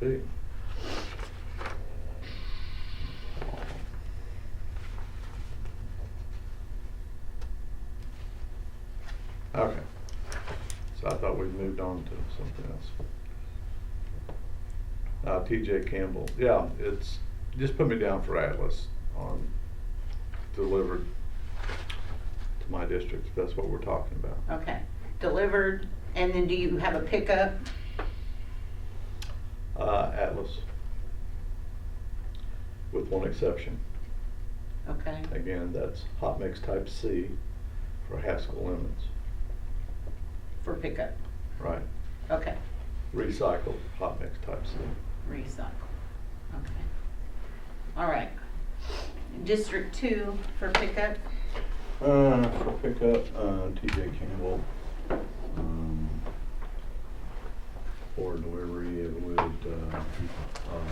big. Okay. So I thought we moved on to something else. Uh, TJ Campbell, yeah, it's, just put me down for Atlas on delivered to my district, if that's what we're talking about. Okay, delivered, and then do you have a pickup? Uh, Atlas. With one exception. Okay, Again, that's hot mix type C for Haskell lemons, for pickup, right? okay, Recycled hot mix type C. recycle, okay. All right. District two for pickup, Uh, for pickup, uh, TJ Campbell. um, For delivery, it would, uh, um,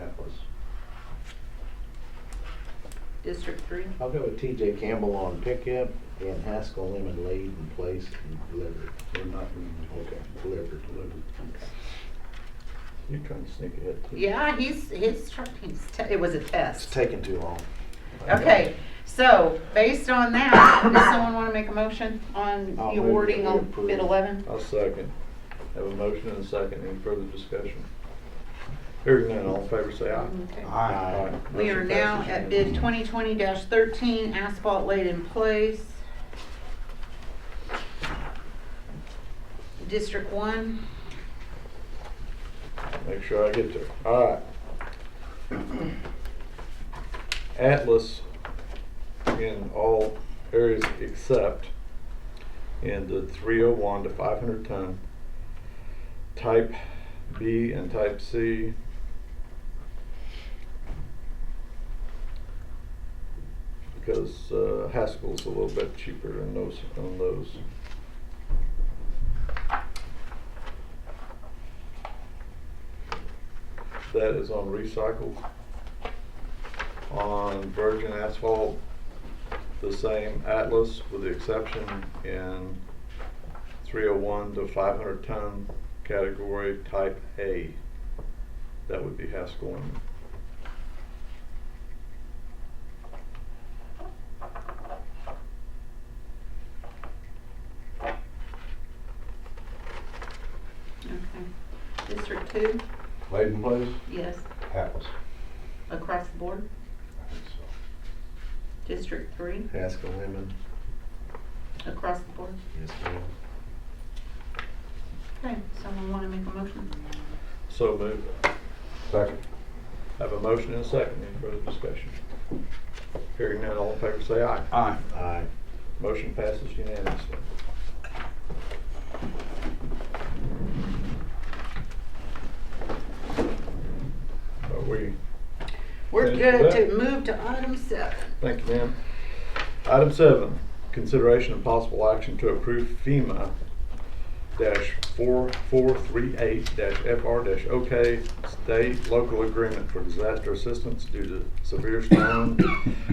Atlas. district three, I'll go with TJ Campbell on pickup and Haskell Lemon laid in place and delivered. We're not doing Okay, delivered. delivered. You're trying to sneak ahead. too. yeah, he's, his, tr- he's, te- it was a It's test. taking too long. Okay, so based on that, does someone wanna make a motion on I'll the move awarding that we on approve. bid eleven? I'll second. Have a motion and a second. Any further discussion? Hearing none, all in favor say aye. Okay. Uh, Aye. We are Motion now passes at bid twenty twenty thirteen, asphalt laid in place. District one, unanimously. Make sure I get there. All right. Atlas in all areas except in the three oh one to five hundred ton, type B and type C. Because uh, Haskell's a little bit cheaper than those, than those. That is on recycled. On virgin asphalt, the same Atlas with the exception in three oh one to five hundred ton category type A. That would be Haskell and. okay. District two, Laid in place? yes, Atlas. across the board. District three, Haskell Lemon, across the board. yes ma'am. Okay, someone wanna make a motion? So moved. Second. Have a motion and a second. Any further discussion? Hearing none, all in favor say aye. Aye. Aye. Motion passes unanimously. Are we, We're Thank good you. to move to item seven. thank you, ma'am. Item seven, consideration of possible action to approve FEMA dash four four three eight dash FR dash OK state local agreement for disaster assistance due to severe storm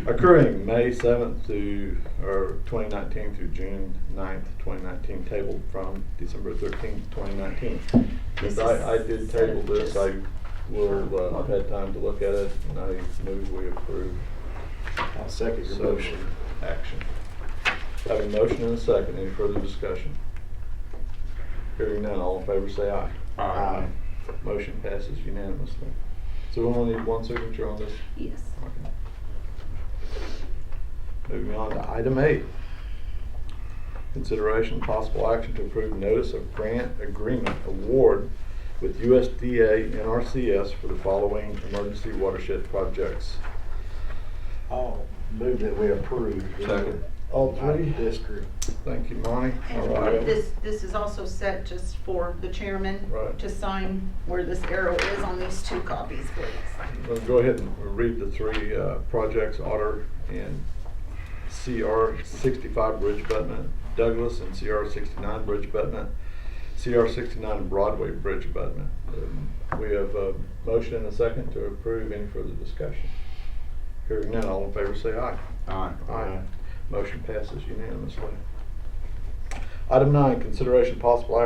occurring May seventh through, or twenty nineteen through June 9th, twenty nineteen, tabled from December thirteenth, twenty nineteen. This I, I is did set up table this, just- I will, uh, I've had time to look at it, and I move we approve I'll second your So- motion. action. I have a motion and a second, any further discussion? Hearing none, all in favor say aye. Aye. Motion passes unanimously. So we only need one signature on this? Yes. Okay. Moving on to item eight. Consideration possible action to approve notice of grant agreement award with USDA NRCS for the following emergency watershed projects. I'll move that we approve. Second. All three? District. Thank you, Monty. All And right. this, this is also set just for the chairman Right. to sign where this arrow is on these two copies, please. We'll go ahead and read the three uh, projects, Otter and CR sixty-five Bridge abutment, Douglas and CR sixty-nine Bridge abutment, CR sixty-nine Broadway Bridge abutment. Um, We have a motion and a second to approve. Any further discussion? Hearing none, all in favor say aye. Aye. Aye. Motion passes unanimously. Item nine, consideration possible action